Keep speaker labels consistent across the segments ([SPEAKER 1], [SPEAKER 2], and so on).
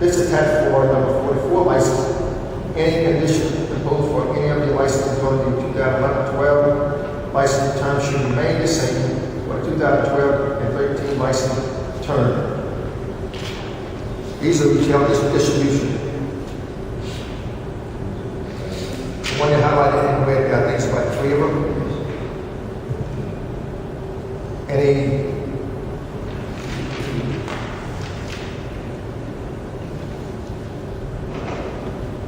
[SPEAKER 1] had for number 44 license, any condition imposed for any of the licenses voted in 2011-12, license term should remain the same for 2012 and 13 license term. These are retail distribution. The one you highlighted in red, I think it's about three of them. Any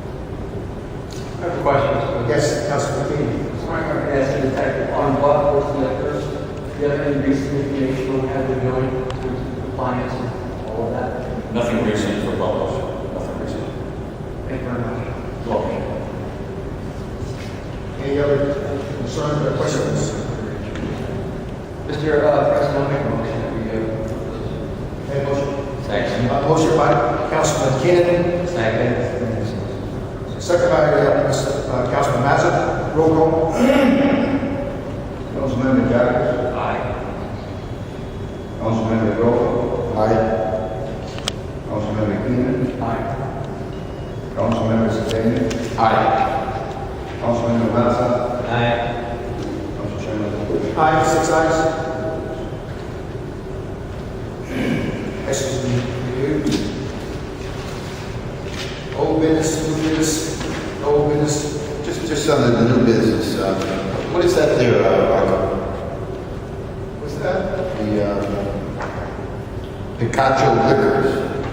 [SPEAKER 2] I have a question, Mr. President.
[SPEAKER 1] Yes, Councilman Keenan.
[SPEAKER 2] So I'm going to ask you, Detective, on what was liquors, do you have any recent information on how they're doing in terms of compliance and all of that?
[SPEAKER 3] Nothing recent for Bubba's, nothing recent.
[SPEAKER 2] Thank you very much.
[SPEAKER 3] Well,
[SPEAKER 1] Any other concerns or questions?
[SPEAKER 2] Mr. uh, President, I'll make a motion that we uh,
[SPEAKER 1] Any motion?
[SPEAKER 2] Second.
[SPEAKER 1] A motion by Councilman Keenan,
[SPEAKER 2] Second.
[SPEAKER 1] second by uh, Mr. uh, Councilman Mazza. Roll call.
[SPEAKER 4] Councilmember Jacobs?
[SPEAKER 2] Aye.
[SPEAKER 4] Councilmember Grove? Aye. Councilmember Keenan?
[SPEAKER 2] Aye.
[SPEAKER 4] Councilmember Sedan?
[SPEAKER 2] Aye.
[SPEAKER 4] Councilmember Mazza?
[SPEAKER 2] Aye.
[SPEAKER 4] Council Chairman Lewis?
[SPEAKER 1] Aye, six ayes. Excuse me. Old business, new business, old business.
[SPEAKER 5] Just, just on the new business, uh, what is that there, uh, Rocco?
[SPEAKER 1] What's that?
[SPEAKER 5] the, uh, Picacho Liquors?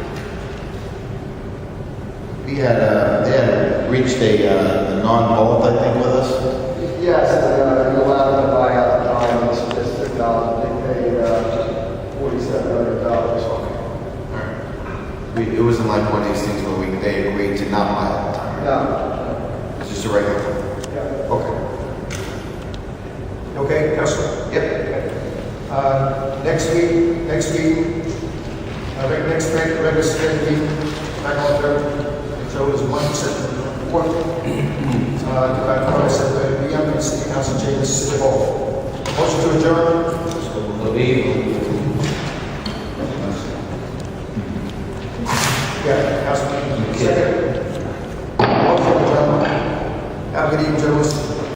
[SPEAKER 5] We had, uh, they had reached a, uh, a non-vault, I think, with us?
[SPEAKER 6] Yes, uh, you allowed them to buy out the dollars, it's ten dollars, they paid, uh, forty-seven hundred dollars.
[SPEAKER 5] We, it wasn't like one of these things where we, they agreed to not buy it at the time, right?
[SPEAKER 6] No,
[SPEAKER 5] It's just a regular thing?
[SPEAKER 6] yeah,
[SPEAKER 5] Okay.
[SPEAKER 1] Okay, Councilman.
[SPEAKER 5] Yep.
[SPEAKER 1] Uh, Next week, next week, uh, reg- next reg- regular scheduled meeting, back on Thursday, so it is one to seven, four. Uh, About quarter to seven, we are in City Council chambers, City Hall. Motion to adjourn,
[SPEAKER 2] Believe.